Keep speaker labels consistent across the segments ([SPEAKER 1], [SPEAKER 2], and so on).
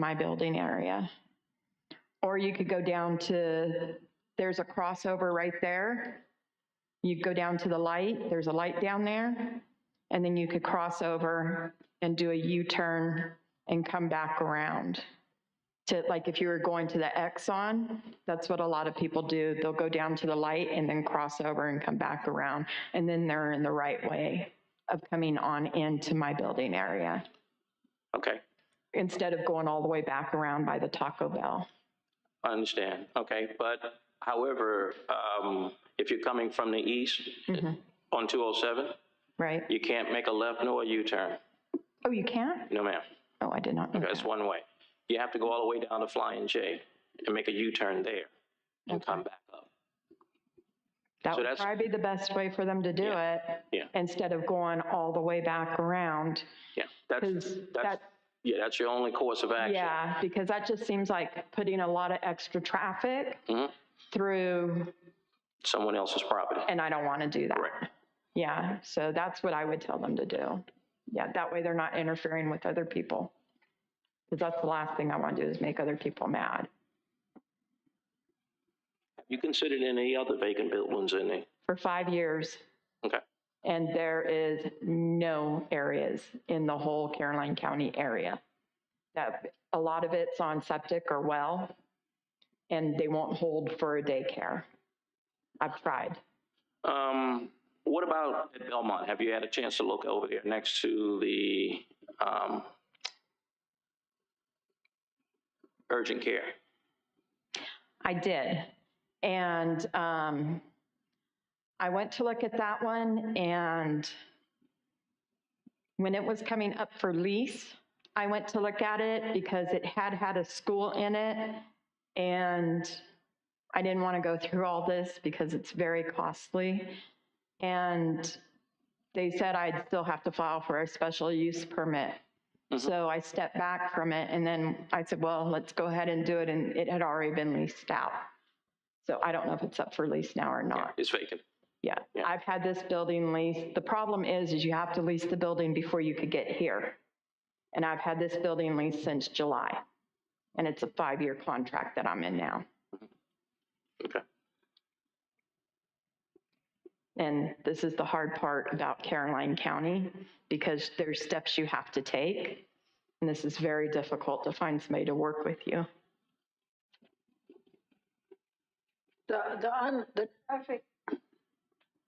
[SPEAKER 1] my building area. Or you could go down to, there's a crossover right there. You go down to the light, there's a light down there, and then you could cross over and do a U-turn and come back around. To, like, if you were going to the Exxon, that's what a lot of people do. They'll go down to the light and then cross over and come back around. And then they're in the right way of coming on into my building area
[SPEAKER 2] Okay,
[SPEAKER 1] instead of going all the way back around by the Taco Bell.
[SPEAKER 2] I understand. Okay, but however, um, if you're coming from the east
[SPEAKER 1] Mm-hmm.
[SPEAKER 2] on 207,
[SPEAKER 1] Right?
[SPEAKER 2] you can't make a left nor a U-turn.
[SPEAKER 1] Oh, you can't?
[SPEAKER 2] No, ma'am.
[SPEAKER 1] Oh, I did not know
[SPEAKER 2] That's
[SPEAKER 1] that.
[SPEAKER 2] one way. You have to go all the way down to Flying J and make a U-turn there and come back up.
[SPEAKER 1] That
[SPEAKER 2] so
[SPEAKER 1] would
[SPEAKER 2] that's-
[SPEAKER 1] probably be the best way for them to do it.
[SPEAKER 2] yeah.
[SPEAKER 1] Instead of going all the way back around.
[SPEAKER 2] Yeah, that's,
[SPEAKER 1] 'Cause
[SPEAKER 2] that's,
[SPEAKER 1] that-
[SPEAKER 2] yeah, that's your only course of action.
[SPEAKER 1] Yeah, because that just seems like putting a lot of extra traffic
[SPEAKER 2] Mhm.
[SPEAKER 1] through,
[SPEAKER 2] Someone else's property.
[SPEAKER 1] and I don't want to do that.
[SPEAKER 2] Correct.
[SPEAKER 1] Yeah, so that's what I would tell them to do. Yeah, that way they're not interfering with other people. Because that's the last thing I want to do is make other people mad.
[SPEAKER 2] Have you considered any other vacant buildings in there?
[SPEAKER 1] for five years.
[SPEAKER 2] Okay.
[SPEAKER 1] And there is no areas in the whole Caroline County area. That, a lot of it's on septic or well, and they won't hold for a daycare. I've tried.
[SPEAKER 2] Um, what about at Belmont? Have you had a chance to look over there next to the, um, urgent care?
[SPEAKER 1] I did. And um, I went to look at that one and when it was coming up for lease, I went to look at it because it had had a school in it. And I didn't want to go through all this because it's very costly. And they said I'd still have to file for a special use permit.
[SPEAKER 2] Mhm.
[SPEAKER 1] So I stepped back from it and then I said, well, let's go ahead and do it. And it had already been leased out. So I don't know if it's up for lease now or not.
[SPEAKER 2] It's vacant.
[SPEAKER 1] Yeah,
[SPEAKER 2] Yeah.
[SPEAKER 1] I've had this building leased. The problem is, is you have to lease the building before you could get here. And I've had this building leased since July. And it's a five-year contract that I'm in now.
[SPEAKER 3] Mm-hmm.
[SPEAKER 2] Okay.
[SPEAKER 1] And this is the hard part about Caroline County, because there's steps you have to take. And this is very difficult to find somebody to work with you.
[SPEAKER 3] The, the, un- the traffic,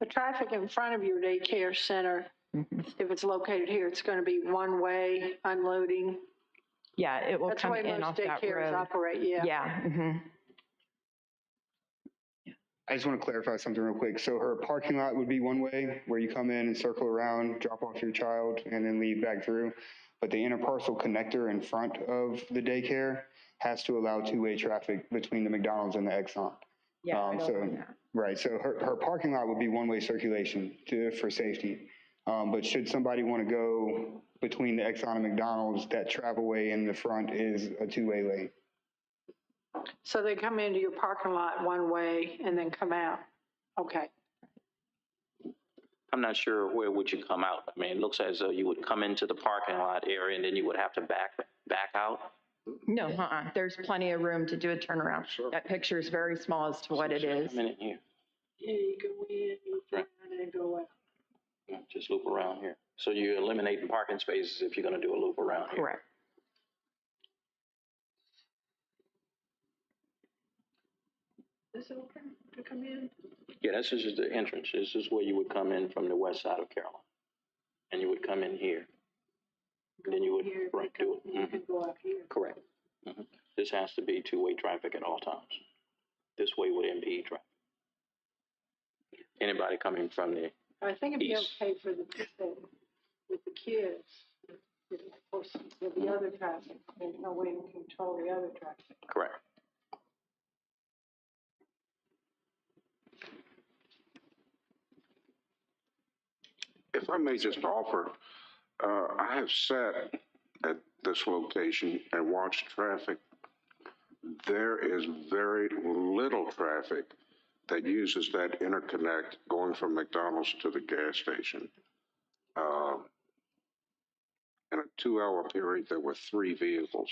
[SPEAKER 3] the traffic in front of your daycare center,
[SPEAKER 1] Mhm.
[SPEAKER 3] if it's located here, it's going to be one-way unloading.
[SPEAKER 1] Yeah, it will
[SPEAKER 3] That's the
[SPEAKER 1] come
[SPEAKER 3] way
[SPEAKER 1] in
[SPEAKER 3] most
[SPEAKER 1] off that
[SPEAKER 3] daycares
[SPEAKER 1] road.
[SPEAKER 3] operate, yeah.
[SPEAKER 1] Yeah, mhm.
[SPEAKER 4] I just want to clarify something real quick. So her parking lot would be one way where you come in and circle around, drop off your child and then lead back through. But the interparcel connector in front of the daycare has to allow two-way traffic between the McDonald's and the Exxon.
[SPEAKER 1] yeah. I
[SPEAKER 4] Um,
[SPEAKER 1] don't
[SPEAKER 4] so-
[SPEAKER 1] know that.
[SPEAKER 4] Right, so her, her parking lot would be one-way circulation to, for safety. Um, but should somebody want to go between the Exxon and McDonald's, that travelway in the front is a two-way lane.
[SPEAKER 3] So they come into your parking lot one way and then come out. Okay.
[SPEAKER 2] I'm not sure where would you come out. I mean, it looks as though you would come into the parking lot area and then you would have to back, back out.
[SPEAKER 1] No, uh-uh, there's plenty of room to do a turnaround. That picture is very small as to what it is.
[SPEAKER 2] A minute here,
[SPEAKER 3] Yeah, you go in, you
[SPEAKER 2] Right.
[SPEAKER 3] and then go out.
[SPEAKER 2] just loop around here. So you're eliminating parking spaces if you're gonna do a loop around here.
[SPEAKER 1] Correct.
[SPEAKER 3] Is it okay to come in?
[SPEAKER 2] Yeah, this is the entrance. This is where you would come in from the west side of Carolina. And you would come in here. And then you would,
[SPEAKER 3] Here,
[SPEAKER 2] right, do it.
[SPEAKER 3] You
[SPEAKER 2] Mhm.
[SPEAKER 3] can go out here.
[SPEAKER 2] Correct. Mhm. This has to be two-way traffic at all times. This way would impede E traffic. Anybody coming from the,
[SPEAKER 3] I think it'd be
[SPEAKER 2] East.
[SPEAKER 3] okay for the people with the kids, with the person, with the other traffic. There's no way to control the other traffic.
[SPEAKER 2] correct.
[SPEAKER 5] If I may just offer, uh, I have sat at this location and watched traffic. There is very little traffic that uses that interconnect going from McDonald's to the gas station. Um, In a two-hour period, there were three vehicles